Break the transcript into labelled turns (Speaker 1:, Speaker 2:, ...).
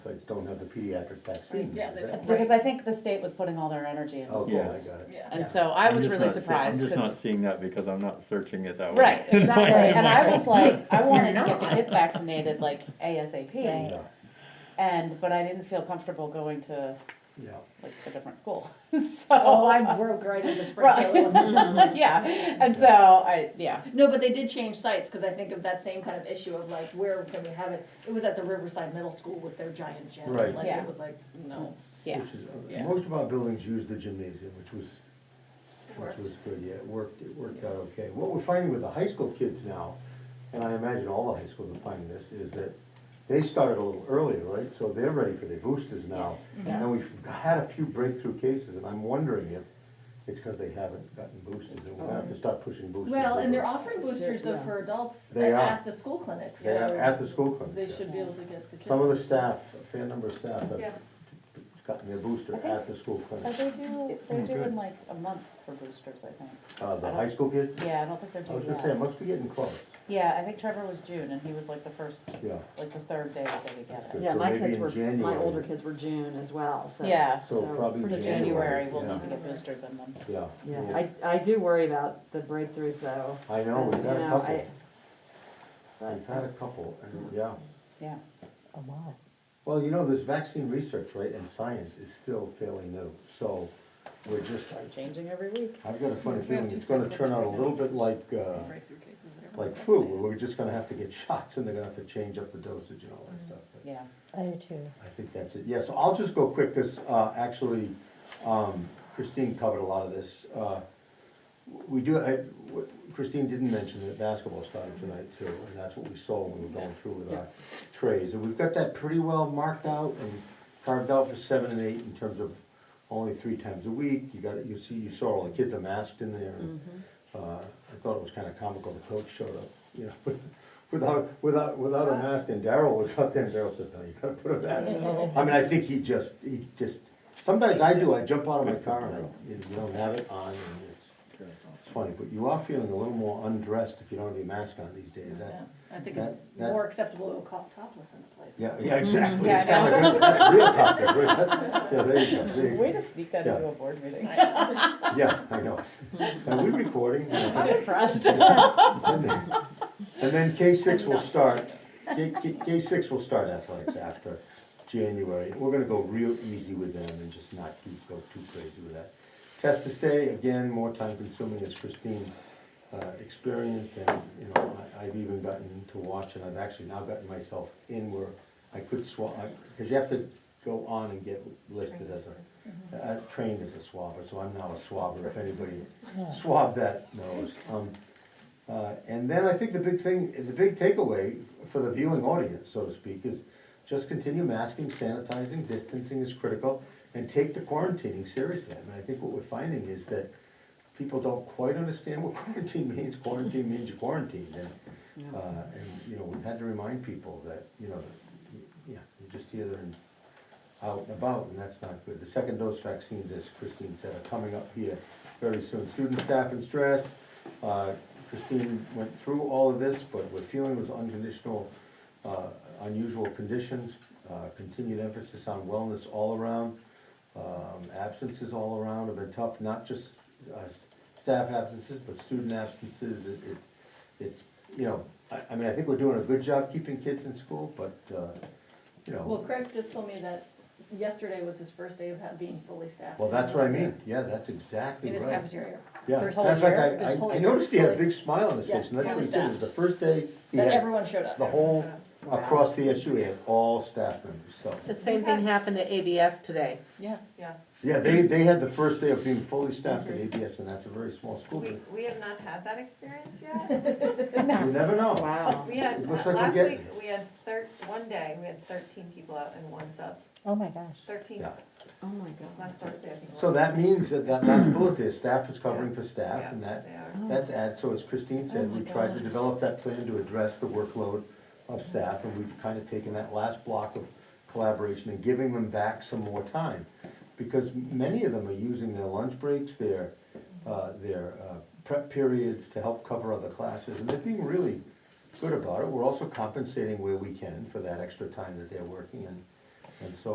Speaker 1: pediatric vaccine.
Speaker 2: Yeah,
Speaker 1: is
Speaker 2: they
Speaker 1: that
Speaker 2: don't.
Speaker 1: right?
Speaker 3: Because I think the state was putting all their energy into
Speaker 1: Oh, cool, I got
Speaker 3: schools.
Speaker 1: it.
Speaker 2: Yeah.
Speaker 3: And so I
Speaker 4: I'm
Speaker 3: was
Speaker 4: just
Speaker 3: really
Speaker 4: not see-
Speaker 3: surprised.
Speaker 4: I'm just
Speaker 3: 'cause-
Speaker 4: not seeing that because I'm not searching it that way.
Speaker 3: Right, exactly. And I was like, I wanted to
Speaker 5: You're
Speaker 3: get the
Speaker 5: not.
Speaker 3: kids vaccinated like ASAP.
Speaker 1: Yeah,
Speaker 3: And, but I didn't feel comfortable going to
Speaker 1: yeah.
Speaker 3: like a different school. So,
Speaker 2: Oh, I broke right into Springfield,
Speaker 3: Right.
Speaker 2: it wasn't.
Speaker 3: yeah. And so I, yeah.
Speaker 2: No, but they did change sites, cause I think of that same kind of issue of like, where can we have it? It was at the Riverside Middle School with their giant gym,
Speaker 1: Right.
Speaker 2: like,
Speaker 3: Yeah.
Speaker 2: it was like, no.
Speaker 3: Yeah.
Speaker 1: Which is, uh,
Speaker 2: Yeah.
Speaker 1: most of our buildings use the gymnasium, which was, which
Speaker 2: Worked.
Speaker 1: was good, yeah, it worked, it worked out okay. What we're finding with the high school kids now, and I imagine all the high schools are finding this, is that they started a little earlier, right? So they're ready for their boosters now. And we've had a few breakthrough cases, and I'm wondering if it's because they haven't gotten boosters, and we'll have to start pushing boosters.
Speaker 2: Oh. Well, and they're
Speaker 1: over.
Speaker 2: offering boosters though for adults
Speaker 1: They
Speaker 2: at,
Speaker 1: are.
Speaker 2: at the school clinics,
Speaker 1: They are at
Speaker 2: so
Speaker 1: the school clinic.
Speaker 2: they
Speaker 1: yeah.
Speaker 2: should be able to get the kids.
Speaker 1: Some of the staff, a fair number of staff
Speaker 2: Yeah.
Speaker 1: have gotten their booster
Speaker 3: think-
Speaker 1: at the school
Speaker 3: But
Speaker 1: clinic.
Speaker 3: they do, they're
Speaker 4: Mm, good.
Speaker 3: doing like a month for boosters, I think.
Speaker 1: Uh, the high school kids?
Speaker 3: Yeah, I don't think they're
Speaker 1: I was
Speaker 3: doing
Speaker 1: gonna say, it
Speaker 3: that.
Speaker 1: must be getting close,
Speaker 3: Yeah, I think Trevor was June and he was like the first,
Speaker 1: yeah.
Speaker 3: like the third day that they would
Speaker 1: That's
Speaker 3: get
Speaker 1: good.
Speaker 3: it.
Speaker 5: Yeah,
Speaker 1: So
Speaker 5: my
Speaker 1: maybe
Speaker 5: kids
Speaker 1: in
Speaker 5: were, my
Speaker 1: January.
Speaker 5: older kids were June as well, so.
Speaker 3: Yeah.
Speaker 1: So probably
Speaker 3: For
Speaker 5: pretty
Speaker 1: January.
Speaker 3: January, we'll
Speaker 1: yeah.
Speaker 3: need to get boosters in them.
Speaker 1: Yeah.
Speaker 5: Yeah, I, I do worry about the breakthroughs though.
Speaker 1: I know,
Speaker 5: because,
Speaker 1: we've had
Speaker 5: you
Speaker 1: a
Speaker 5: know,
Speaker 1: couple,
Speaker 5: I-
Speaker 1: we've had a couple, and, yeah.
Speaker 3: Yeah.
Speaker 1: Well, you know, this vaccine research, right, and science is still fairly new, so we're just,
Speaker 3: Changing every week.
Speaker 1: I've got a funny
Speaker 6: We have
Speaker 1: feeling
Speaker 6: two
Speaker 1: it's gonna
Speaker 6: separate
Speaker 1: turn out a
Speaker 6: right now.
Speaker 1: little bit like, uh,
Speaker 6: breakthrough cases. that are
Speaker 1: like
Speaker 6: really
Speaker 1: flu,
Speaker 6: vaccinated.
Speaker 1: where we're just gonna have to get shots, and they're gonna have to change up the dosage and all that stuff. but-
Speaker 3: Yeah.
Speaker 1: I think that's it. Yeah, so I'll just go quick, because actually um, Christine covered a lot of this. Uh, We do, I- what- Christine didn't mention that basketball started tonight too, and that's what we saw when we were going through with our trays. And we've got that pretty well marked out and carved out for seven and eight in terms of only three times a week. You got, you see, you saw all the kids are masked in there. and, uh, I thought it was kind of comical, the coach showed up, you know, without, without, without a mask, and Daryl was out there, and Daryl said, no, you gotta put a mask on. I mean, I think he just, he just, sometimes I do, I jump out of my car and I, you don't have it on, and it's, it's funny, but you are feeling a little more undressed if you don't have your mask on these days, that's,
Speaker 2: I think it's
Speaker 1: that- that's-
Speaker 2: more acceptable to go co- topless in the place.
Speaker 1: yeah, yeah, exactly.
Speaker 3: Yeah,
Speaker 1: It's kinda
Speaker 3: I
Speaker 1: like, That's real topic, right? That's- yeah, there you go, there you go.
Speaker 3: Way to sneak that into
Speaker 1: Yeah.
Speaker 3: a board meeting.
Speaker 1: yeah, I know. Are we recording?
Speaker 3: I'm impressed.
Speaker 1: And then- and then K six will start, K, K, K six will start athletics after January. We're gonna go real easy with them and just not do, go too crazy with that. Test to stay, again, more time consuming as Christine, uh, experienced and, you know, I, I've even gotten to watch and I've actually now gotten myself in where I could swab, cause you have to go on and get listed as a, uh, trained as a swabber, so I'm now a swabber if anybody swabbed that nose. Um, uh, And then I think the big thing, the big takeaway for the viewing audience, so to speak, is just continue masking, sanitizing, distancing is critical, and take the quarantining seriously. I mean, I think what we're finding is that people don't quite understand what quarantine means. Quarantine means you're quarantined, and, uh, and, you know, we've had to remind people that, you know, yeah, you're just here and out and about, and that's not good. The second dose vaccines, as Christine said, are coming up here very soon. Student staff and stress, uh, Christine went through all of this, but we're feeling was unconditional, uh, unusual conditions, uh, continued emphasis on wellness all around. Um, Absences all around have been tough, not just uh, staff absences, but student absences. It- it- It's, you know, I I mean, I think we're doing a good job keeping kids in school, but, uh, you know.
Speaker 2: Well, Craig just told me that yesterday was his first day of ha- being fully staffed.
Speaker 1: Well, that's what I mean, yeah, that's exactly
Speaker 2: In his
Speaker 1: right.
Speaker 2: cafeteria.
Speaker 1: Yeah,
Speaker 3: This
Speaker 1: as a
Speaker 3: whole
Speaker 1: matter of fact,
Speaker 3: year?
Speaker 1: I-
Speaker 2: This whole
Speaker 1: I, I
Speaker 2: year?
Speaker 1: noticed he had a
Speaker 2: Yes.
Speaker 1: big smile on his
Speaker 2: Yeah,
Speaker 1: face, and that's
Speaker 2: full
Speaker 1: what he said, it was the
Speaker 2: staff.
Speaker 1: first day he
Speaker 2: That
Speaker 1: had,
Speaker 2: everyone showed up.
Speaker 1: the whole,
Speaker 5: Wow.
Speaker 1: across the SU, he had all staff members, so.
Speaker 5: The same thing happened at ABS today.
Speaker 6: Yeah,
Speaker 1: Yeah, they, they had the first day of being fully staffed at ABS, and that's a very small school,
Speaker 7: We,
Speaker 1: but
Speaker 7: we have not had that experience yet.
Speaker 1: you never know.
Speaker 5: Wow.
Speaker 7: We had, uh,
Speaker 1: It looks like we're
Speaker 7: last
Speaker 1: getting
Speaker 7: week, we had thir, one day, we had thirteen people out and one sub,
Speaker 8: Oh my gosh.
Speaker 7: thirteen,
Speaker 1: Yeah.
Speaker 5: Oh my God.
Speaker 7: last Thursday, I think. it
Speaker 1: So
Speaker 7: was.
Speaker 1: that means that that last bullet there, staff is covering for staff,
Speaker 7: Yeah,
Speaker 1: and that,
Speaker 7: they are.
Speaker 1: that's add, so as Christine said, we tried to develop that plan to address the workload of staff, and we've kind of taken that last block of collaboration and giving them back some more time. Because many of them are using their lunch breaks, their, uh, their uh, prep periods to help cover other classes, and they're being really good about it. We're also compensating where we can for that extra time that they're working, and, and so